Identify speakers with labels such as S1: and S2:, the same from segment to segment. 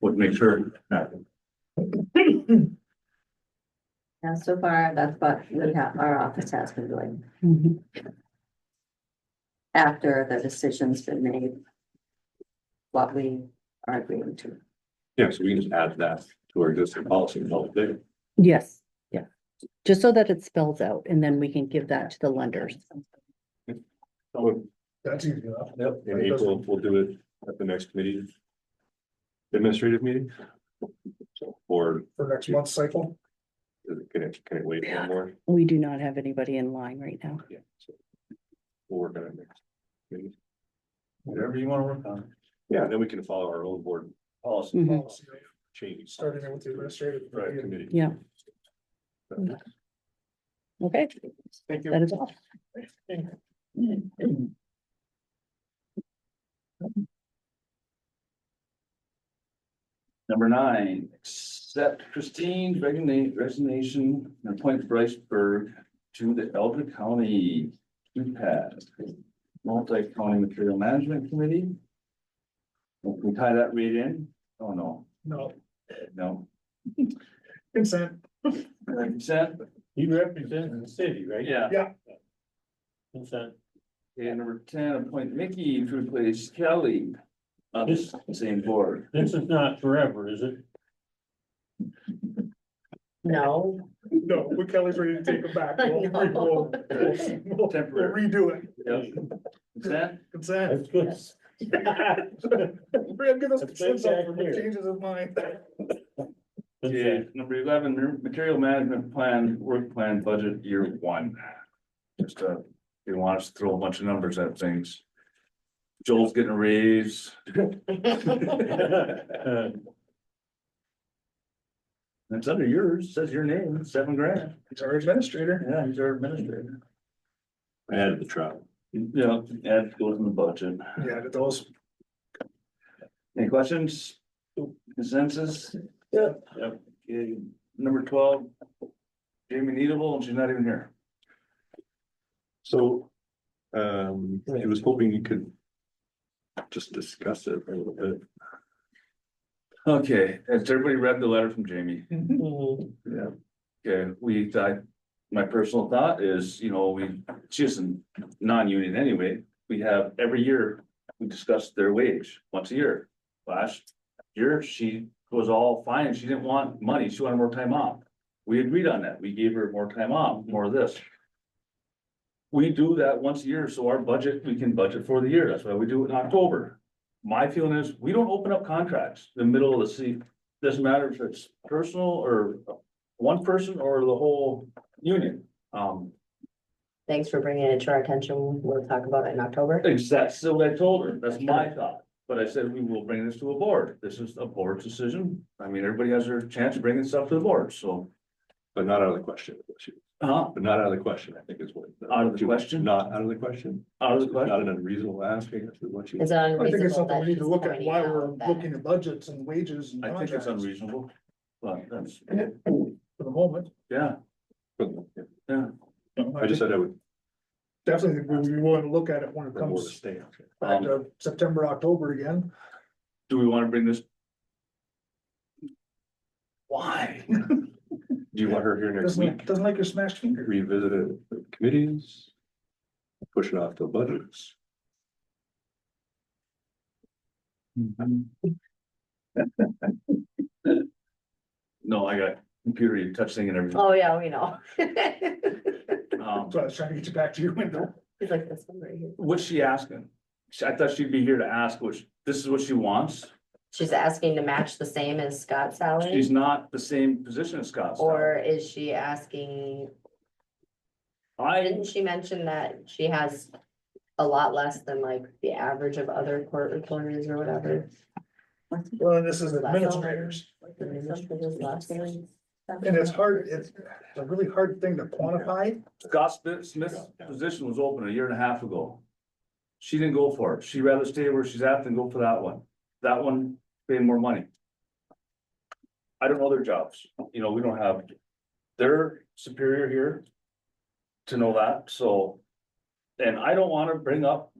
S1: would make sure. that-
S2: Yeah, so far, that's what we have, our office has been doing after the decision's been made. What we are agreeing to.
S1: Yeah, so we can just add that to our existing policy and all day.
S3: Yes, yeah. Just so that it spells out and then we can give that to the lenders.
S1: So
S4: That's easy enough.
S1: Oh, Yep, in April, we'll do it at the next committee. Administrative meeting. So, Or
S4: For next month's cycle,
S1: can it, can it wait one more?
S3: We do not have anybody in line right now.
S1: Yeah. so We'll work on it next. meeting. Whatever you wanna work on. Yeah, then we can follow our own board policy
S3: Mhm.
S4: policy,
S1: change.
S4: starting it with the administrative.
S1: Right, committee.
S3: Yeah. Okay,
S4: Thank
S3: that is all.
S5: Number nine, accept Christine resigna- resignation and appoint Bryce Berg to the Elder County MPAS, Multi-County Material Management Committee. Can we tie that read in? Oh, no,
S4: No,
S5: no.
S4: consent.
S5: Consent?
S6: He represents the city, right?
S5: Yeah.
S6: Consent.
S5: And number ten, appoint Mickey to replace Kelly on this same board.
S6: This is not forever, is it?
S2: No.
S4: No, when Kelly's ready to take it back, we'll,
S2: No.
S4: we'll, we'll we'll
S5: Temporary.
S4: redo it.
S5: Yep. Consent?
S4: Consent.
S6: That's good.
S4: Brad, give us
S6: It's
S4: consent
S6: been back
S4: over
S6: here.
S4: changes of mind.
S5: Okay, number eleven, ma- material management plan, work plan, budget year one. Just, uh, they want us to throw a bunch of numbers at things. Joel's getting a raise.
S6: Consent.
S5: It's under yours, says your name, seven grand.
S4: He's our administrator.
S5: Yeah, he's our administrator.
S1: Add the travel.
S5: Yeah, add goes in the budget.
S4: Yeah, that those,
S5: Any questions? Consensus?
S6: Yeah.
S5: Yep. Okay, number twelve. Jamie Needable, and she's not even here.
S1: So, um, I was hoping you could just discuss it a little bit.
S5: Okay, has everybody read the letter from Jamie?
S6: Mm-hmm.
S1: Yeah.
S5: Okay, we, I, my personal thought is, you know, we, she isn't non-union anyway. We have every year, we discuss their wage once a year. Last year, she was all fine. She didn't want money. She wanted more time off. We agreed on that. We gave her more time off, more of this. We do that once a year, so our budget, we can budget for the year. That's why we do it in October. My feeling is, we don't open up contracts in the middle of the sea. Doesn't matter if it's personal or one person or the whole union. Um,
S2: Thanks for bringing it to our attention. We'll talk about it in October.
S5: exactly, so what I told her, that's my thought, but I said, we will bring this to a board, this is a board decision. I mean, everybody has their chance of bringing stuff to the board, so,
S1: But not out of the question,
S5: uh,
S1: but not out of the question, I think is what.
S5: Out of the question?
S1: Not out of the question.
S5: out of the
S1: Not
S5: question.
S1: an unreasonable asking, that's what you.
S2: Is it
S4: I think
S2: unreasonable
S4: it's something
S2: that
S4: we need
S2: she's
S4: to look at
S2: pointing
S4: why we're
S2: out
S4: looking
S2: that?
S4: at budgets and wages and
S5: I think
S4: contracts
S5: it's
S4: for
S5: unreasonable, but that's,
S4: the moment.
S5: yeah,
S1: I
S5: yeah.
S1: just said I would.
S4: Definitely, think we, we want to look at it when it
S1: the board
S4: comes
S1: abstain.
S4: back
S1: Um,
S4: to September, October again.
S5: Do we wanna bring this? Why?
S1: Do you want her here next
S4: Doesn't,
S1: week?
S4: like- doesn't like your smashed finger.
S1: Revisit it with committees? Push it off to budgets?
S5: No, I got computer, you touch thing and everything,
S2: Oh, yeah, we know.
S5: um.
S4: So I was trying to get you back to your window.
S2: He's like this one right here.
S5: What's she asking? She- I thought she'd be here to ask, which, this is what she wants.
S2: She's asking to match the same as Scott's salary,
S5: She's not the same position as Scott's.
S2: or is she asking
S5: I,
S2: Didn't she mention that she has a lot less than like the average of other court reporters or whatever?
S4: Well, and this is administrators. And it's hard, it's a really hard thing to quantify.
S5: Scott Smith- Smith's position was open a year and a half ago. She didn't go for it. She'd rather stay where she's at than go for that one. That one paid more money. I don't know their jobs. You know, we don't have, their superior here to know that, so. And I don't wanna bring up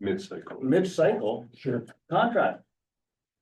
S1: Mid-cycle.
S5: mid-cycle
S6: Sure.
S5: contract.